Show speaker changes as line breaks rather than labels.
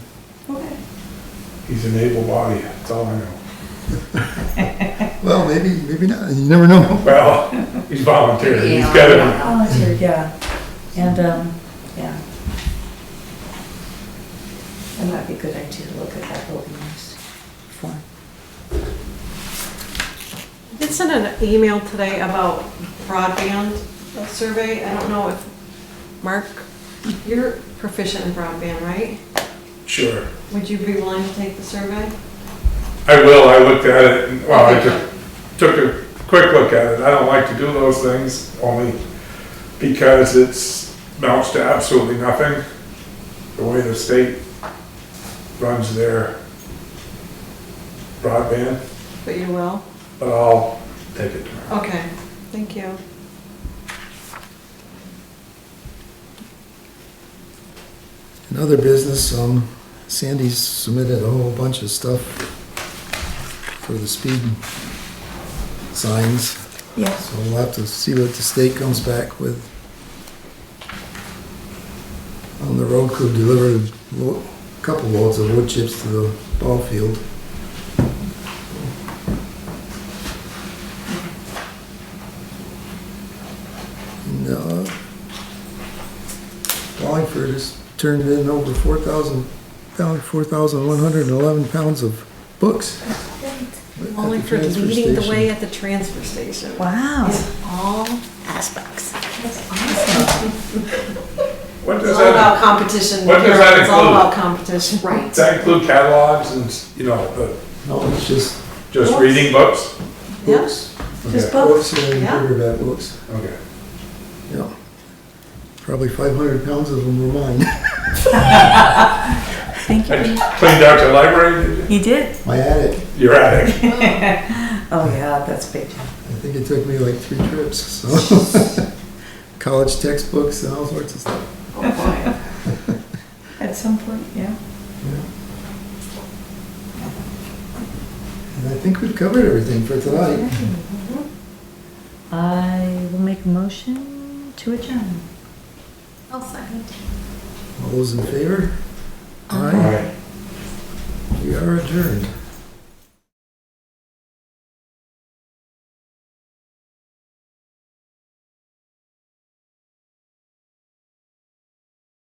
he's an able body, that's all I know.
Well, maybe, maybe not, you never know.
Well, he's volunteering, he's
Yeah,
gotta,
yeah.
Volunteer, yeah, and, um, yeah. That might be a good idea to look at that building use form.
Did send an email today about broadband survey. I don't know if, Mark, you're proficient in broadband, right?
sure.
Would you be willing to take the survey?
I will, I looked at it, and- well, I took, took a quick look at it, I don't like to do those things, only because it's amounts to absolutely nothing, the way the state runs their broadband,
But you will?
but I'll take it tomorrow.
Okay, thank you.
In other business, um, Sandy's submitted a whole bunch of stuff for the speed signs,
Yes.
so we'll have to see what the state comes back with. On the road crew delivered a lo- couple loads of wood chips to the ball field. No. Wallingford has turned in over four thousand, pound, four thousand one hundred and eleven pounds of books. at the
Only for
transfer
leading the
station.
way at the transfer station.
Wow.
It's all aspects.
What
It's
does
all
that,
about competition.
What does that
It's all
include?
about competition.
Right.
does that include catalogs and, you know, the,
No, it's just
just
Books.
reading books?
Yeah.
books.
Just
Okay.
books,
Books and
yeah.
paperback books,
Okay.
yeah. Probably five hundred pounds of them were mine.
thank
I
you.
Cleaned out your library, did you?
You did?
My attic,
Your attic.
Oh, yeah, that's a big. job.
I think it took me like three trips, so. College textbooks and all sorts of stuff.
Oh, boy.
At some point, yeah.
And I think we've covered everything for tonight.
I will make a motion to adjourn.
I'll second.
All those in favor?
All
Aye,
right.
we are adjourned.